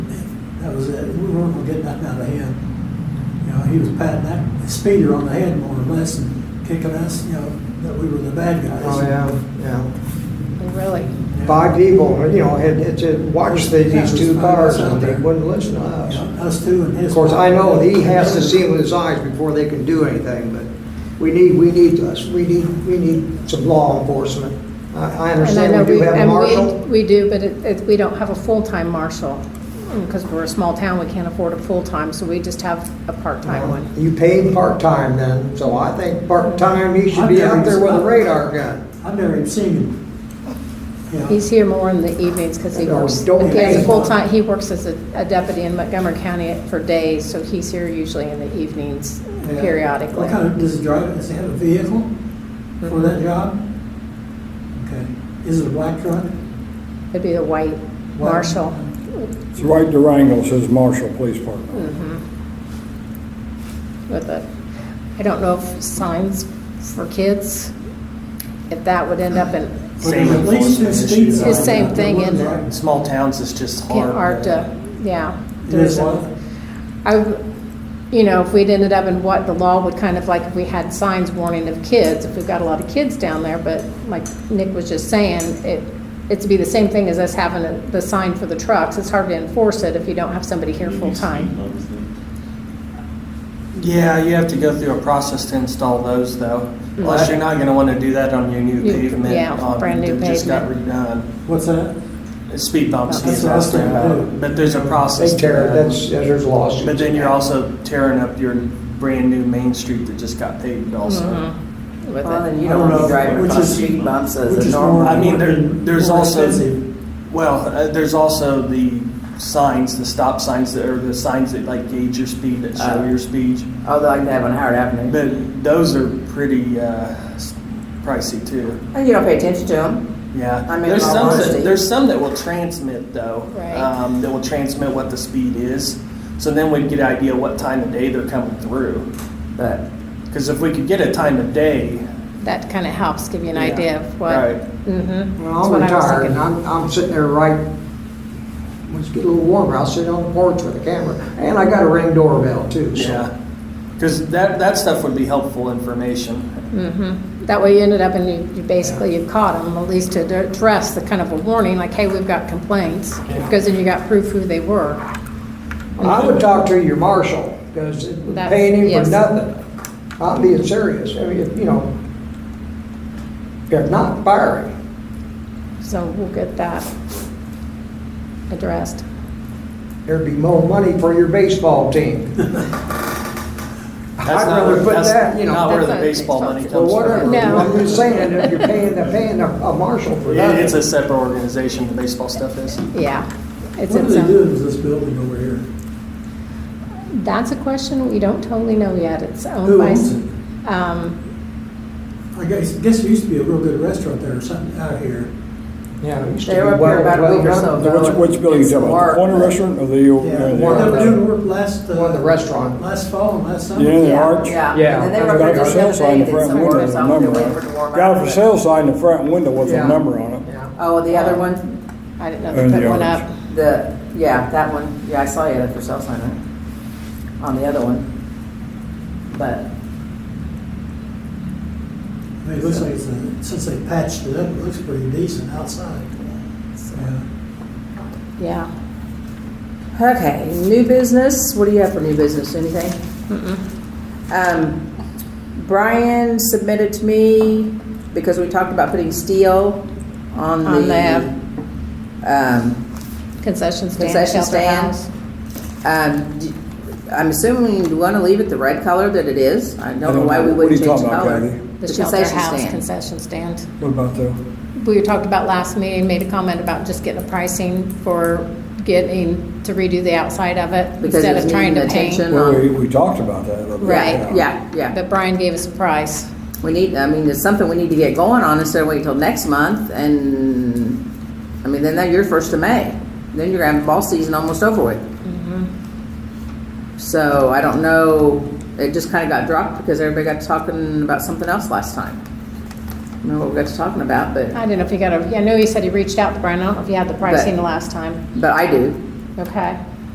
That was it. We weren't getting nothing out of him. You know, he was patting that speeder on the head more or less and kicking us, you know, that we were the bad guys. Oh, yeah, yeah. Really? Yeah. Five people, you know, had, had to watch the- Yeah, it these was two five cars of us out and they there. wouldn't listen to us. You know, Us two and his. Of course, I know he has to see it with his eyes before they can do anything, but we need, we need us, we need, we need some law enforcement. I, I And I know understand we do have a and we- marshal. We do, but it, it, we don't have a full-time marshal. Because we're a small town, we can't afford a full-time, so we just have a part-time one. You pay him part-time then, so I think part-time, he should be out there with a radar gun. I've never even seen him. You know, He's here more in the evenings because he No, works, don't he has pay a him. full-time, he works as a a deputy in Montgomery County for days, so he's here usually in the evenings yeah. periodically. What kind of, does he drive, does he have a vehicle for that job? Okay. Is it a black truck? It'd be the white White. marshal. It's right Durango says Marshall Police Department. with a, I don't know if signs for kids, if that would end up in, Or there's at least two speed signs It's the same out there. thing, One's isn't it? right- In small towns, it's just hard. hard to, uh, yeah. It is There's a- what? I, you know, if we'd ended up in what the law would kind of like, if we had signs warning of kids, if we've got a lot of kids down there, but like Nick was just saying, it, it'd be the same thing as us having a- the sign for the trucks. It's hard to enforce it if you don't have somebody here full-time. Yeah, you have to go through a process to install those though. Plus, you're not gonna wanna do that on your new New- pavement. yeah, um, brand new that Just got redone. What's that? Speed bumps, That's he's what I was asking thinking about, too. but there's a process. They to tear, that. that's, there's lawsuits. But then you're also tearing up your brand new main street that just got paved also. Mhm, with Well, it. and you I don't don't want to know, be driving which across is- speed bumps Which as a is more- normal. I mean, there- there's more also- expensive. Well, uh, there's also the signs, the stop signs that are the signs that like gauge your speed, that show Uh. your speed. Although I can have on Howard Avenue. But those are pretty uh, pricey too. And you don't pay attention to them. Yeah, I mean, there's in all some honesty. that, there's some that will transmit though. Right. Um, that will transmit what the speed is. So then we'd get an idea what time of day they're coming through. But Because if we could get a time of day, That kind of helps give you an Yeah, idea of what. right. Mhm, Well, that's I'm what I was retired, thinking. and I'm, I'm sitting there right, when it's getting a little warmer, I'll sit on the porch with a camera, and I got a ring doorbell too, so. yeah, because that that stuff would be helpful information. Mm-hmm. That way you ended up and you, you basically, you caught them, at least to address the kind of a warning, like, hey, we've got complaints, because then you got proof who they were. I would talk to your marshal, because That's- paying him yes. for nothing, I'm being serious, I mean, if, you know, if not, fire him. So we'll get that addressed. There'd be more money for your baseball team. That's I'd not rather where- put that's that, you know- Not where the That's not baseball baseball. money comes Well, from. whatever, No. I'm just saying, if you're paying, paying a, a marshal for It- nothing. it's a separate organization. The baseball stuff is. Yeah. It's What are its they own- doing with this building over here? That's a question we don't totally know yet. It's owned Who by. owns it? Um, I guess, guess there used to be a real good restaurant there or something out here. Yeah, it used to They be were up well- here about a well week or so done. ago. Which, which building is that, the Mark. corner restaurant or the? old- uh, Yeah, they the- were doing work last, One of the uh, restaurant. last fall and last summer. Yeah, the arch. Yeah. Yeah. And then Got they were a up for there the sale other sign day, in the did front some window work, with so a I'm gonna number wait for on it to it. warm Got a up, for but- sale sign in the front window with a Yeah. number on it. Oh, the other one, I didn't know And they the put one others. up. the, yeah, that one, yeah, I saw you there for sale sign there, on the other one. But, I mean, it looks like it's, a- since they patched it up, it looks pretty decent outside. Yeah. Yeah. okay, new business, what do you have for new business, anything? Um, Brian submitted to me, because we talked about putting steel on On the, um, Concession stand, Concession shelter stand. house. Um, d- I'm assuming you want to leave it the red color that it is. I don't know why What are we you wouldn't change talking about, color. Kathy? The The shelter concession house stand. concession stand. What about the, we were talking about last meeting, made a comment about just getting a pricing for getting, to redo the outside of it Because instead it's of trying to needing paint. attention. well, we, we talked about that. a little bit, Right, Yeah, yeah. But Brian gave us a price. We need, I mean, it's something we need to get going on instead of waiting till next month and, I mean, then that- you're first of May. Then you're gonna have ball season almost over with. So I don't know, it just kind of got dropped because everybody got to talking about something else last time. I don't know what we got to talking about, but, I do not know if he got a, I know he said he reached out to Brian, I don't know if he had the pricing the last time. but I do. Okay,